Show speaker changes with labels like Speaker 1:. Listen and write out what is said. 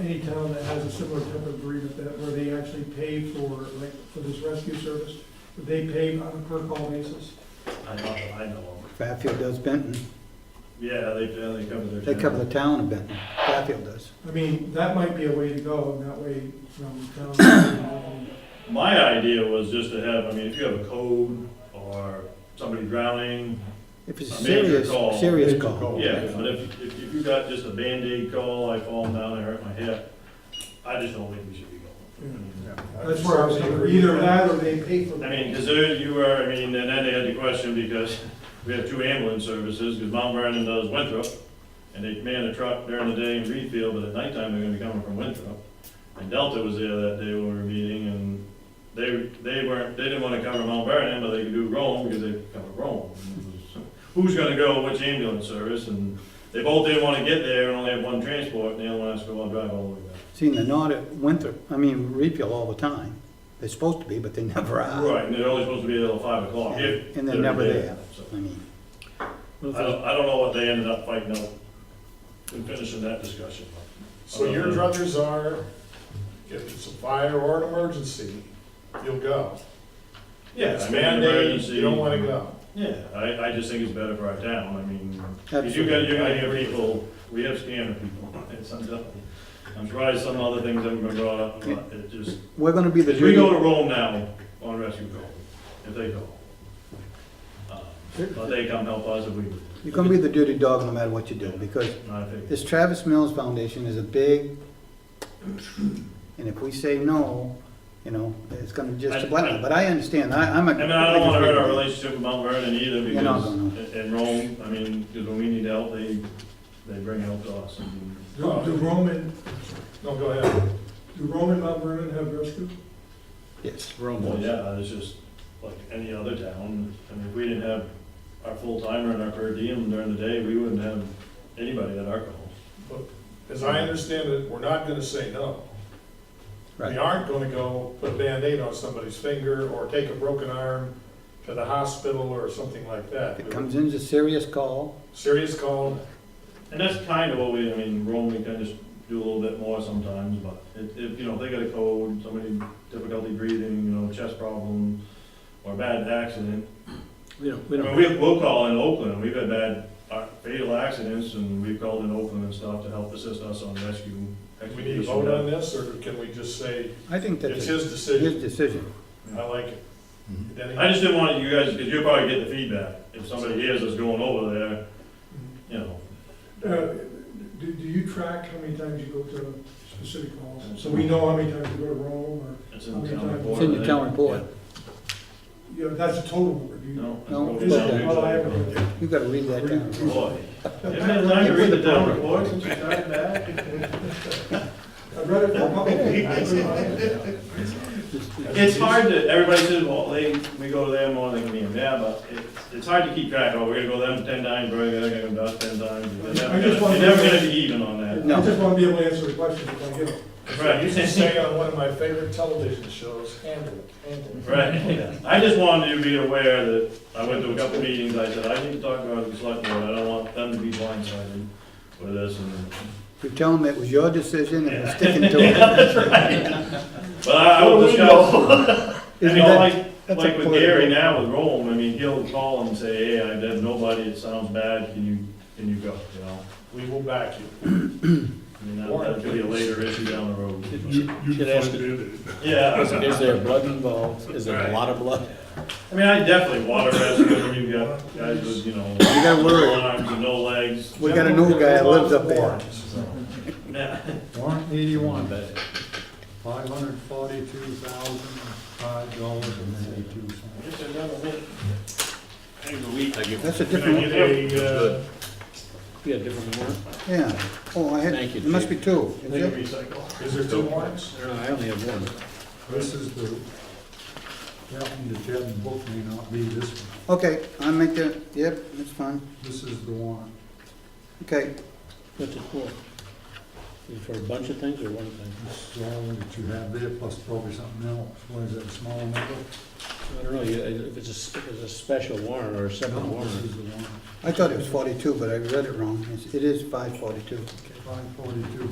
Speaker 1: any town that has a similar type of agreement that, where they actually pay for, like, for this rescue service, they pay on a per call basis.
Speaker 2: I know, I know.
Speaker 3: Bradfield does Benton.
Speaker 2: Yeah, they, yeah, they cover their.
Speaker 3: They cover the
Speaker 2: town.
Speaker 3: town of Benton. Bradfield does.
Speaker 1: I mean, that might be a way to go, and that way from town.
Speaker 2: My idea was just to have, I mean, if you have a code or somebody drowning,
Speaker 3: If it's a
Speaker 2: A major
Speaker 3: serious,
Speaker 2: call.
Speaker 3: serious
Speaker 4: Major
Speaker 3: call.
Speaker 4: call.
Speaker 2: yeah, but if, if you got just a Band-Aid call, I fall down, I hurt my hip, I just don't think we should be
Speaker 4: Mm-hmm.
Speaker 2: going.
Speaker 1: That's where I was thinking, either that or they pay for.
Speaker 2: I mean, because there, you are, I mean, and then they had the question because we have two ambulance services, because Mount Vernon does Winthrop, and they man a truck during the day in Reedfield, but at nighttime, they're gonna be coming from Winthrop. And Delta was there that day when we were meeting, and they, they weren't, they didn't wanna cover Mount Vernon, but they could do Rome, because they cover Rome. Who's gonna go, which ambulance service, and they both didn't wanna get there and only have one transport, and the other one has to go on drive all the way back.
Speaker 3: Seeing they're not at Winthrop, I mean, Reedfield all the time. They're supposed to be, but they never are.
Speaker 2: Right, and they're only supposed to be there till five o'clock, if.
Speaker 3: Ah. And they're never there.
Speaker 2: so.
Speaker 3: I mean,
Speaker 2: I don't, I don't know what they ended up fighting out in finishing that discussion.
Speaker 4: So your druthers are, if it's a fire or an emergency, you'll go.
Speaker 2: Yeah,
Speaker 4: It's
Speaker 2: I mean,
Speaker 4: mandated,
Speaker 2: emergency.
Speaker 4: you don't wanna go.
Speaker 2: Yeah, I, I just think it's better for our town, I mean, 'cause you got,
Speaker 3: Absolutely.
Speaker 2: you're gonna have people, we have scanner people, it's, I'm done. I'm surprised some other things haven't been brought up, but it just,
Speaker 3: we're gonna be the
Speaker 2: if we go
Speaker 3: duty,
Speaker 2: to Rome now on rescue call, if they call. Uh, But they come help us if we.
Speaker 3: you're gonna be the duty dog no matter what you do, because
Speaker 2: And I think,
Speaker 3: this Travis Mills Foundation is a big, and if we say no, you know, it's gonna
Speaker 2: I-
Speaker 3: just, but I understand, I, I'm a.
Speaker 2: I mean, I don't wanna hurt our relationship with Mount Vernon either,
Speaker 3: You're not
Speaker 2: because,
Speaker 3: gonna.
Speaker 2: in- in Rome, I mean, because when we need help, they, they bring help to us. I mean,
Speaker 1: Do do Roman,
Speaker 4: No, go ahead.
Speaker 1: do Roman Mount Vernon have rescue?
Speaker 3: Yes,
Speaker 2: Well, yeah, it's just like any other town, I mean, if we didn't have our full timer and our per diem during the day, we wouldn't have anybody at our call.
Speaker 4: As I understand it, we're not gonna say no. We
Speaker 3: right.
Speaker 4: aren't gonna go put a Band-Aid on somebody's finger or take a broken arm to the hospital or something like
Speaker 3: If
Speaker 4: that.
Speaker 3: it comes in as a serious call,
Speaker 4: Serious call,
Speaker 2: And that's kind of what we, I mean, Rome, we can just do a little bit more sometimes, but if, if, you know, if they got a cold, somebody difficulty breathing, you know, chest problem, or bad accident,
Speaker 5: We don't,
Speaker 2: I
Speaker 5: we
Speaker 2: mean,
Speaker 5: don't,
Speaker 2: we, we'll call in Oakland, we've had bad uh, fatal accidents, and we've called in Oakland and stuff to help assist us on rescue.
Speaker 4: do we need to vote on this, or can we just say,
Speaker 3: I think that's
Speaker 4: it's
Speaker 3: Mm-hmm. his
Speaker 4: his decision?
Speaker 3: decision.
Speaker 4: I like it. Denny?
Speaker 2: I just didn't want you guys, because you'll probably get the feedback, if somebody hears us going over there, you know.
Speaker 1: Uh, Do, do you track how many times you go to specific calls? So we know how many times you go to Rome,
Speaker 2: It's in the town report.
Speaker 3: It's in the town
Speaker 2: I think.
Speaker 3: report.
Speaker 1: or, you know, that's a total number, do you?
Speaker 2: No.
Speaker 3: No,
Speaker 2: it's
Speaker 1: Is
Speaker 2: in
Speaker 1: that-
Speaker 2: the town
Speaker 1: oh, I haven't read
Speaker 2: report.
Speaker 1: it.
Speaker 3: You gotta read that down.
Speaker 2: Boy, isn't it time to read the town report since you started that?
Speaker 1: I read it for a couple of people.
Speaker 2: It's hard to, everybody says, well, they, we go to them, or they can be in there, but it's, it's hard to keep track, oh, we're gonna go to them ten times, we're gonna go to them ten times. You're
Speaker 1: I
Speaker 2: never
Speaker 1: just wanna-
Speaker 2: gonna- you're never gonna be even on that.
Speaker 1: I just want to be able to answer the question if I get it.
Speaker 2: Right.
Speaker 4: You used to say on one of my favorite television shows, handle it, handle it.
Speaker 2: Right, I just wanted you to be aware that I went to a couple meetings, I said, I need to talk about the select board, I don't want them to be blindsided with this and.
Speaker 3: You tell him it was your decision and we're sticking to it.
Speaker 2: But I I will discuss, I
Speaker 3: Isn't
Speaker 2: mean,
Speaker 3: that-
Speaker 2: like,
Speaker 3: that's a
Speaker 2: like with
Speaker 3: political-
Speaker 2: Gary now with Rome, I mean, he'll call and say, hey, I have nobody, it sounds bad, can you, can you go, you know?
Speaker 4: We will back you.
Speaker 2: I mean, that- that could be a later issue down the road.
Speaker 5: you should ask, is
Speaker 2: Yeah,
Speaker 5: there blood involved? Is there a lot of blood?
Speaker 2: I mean, I definitely water rescue, when you've got guys with, you know,
Speaker 3: You gotta worry.
Speaker 2: no arms and no legs.
Speaker 3: We got a new guy that lives up there.
Speaker 2: Yeah.
Speaker 6: Warrant eighty-one, five hundred forty-two thousand, five dollars and ninety-two cents.
Speaker 3: That's a
Speaker 4: Can I
Speaker 3: different,
Speaker 4: get a, uh,
Speaker 5: We had different warrant.
Speaker 3: yeah. Oh, I had,
Speaker 5: Thank you,
Speaker 3: there must be two. Is
Speaker 2: They
Speaker 3: there?
Speaker 2: recycle.
Speaker 4: is there two warrants?
Speaker 5: No, I only have one.
Speaker 6: This is the, happened to Ted and book may not be this one.
Speaker 3: Okay, I make the, yep, that's fine.
Speaker 6: This is the warrant.
Speaker 3: Okay,
Speaker 5: What's it for? Is it for a bunch of things or one thing?
Speaker 6: This is all that you have there, plus probably something else. What is that, small number?
Speaker 5: I don't know, you- if it's a, s- if it's a special warrant or a separate
Speaker 6: No,
Speaker 5: warrant.
Speaker 6: this is the warrant.
Speaker 3: I thought it was forty-two, but I read it wrong. It's- It is five forty-two.
Speaker 6: Five forty-two,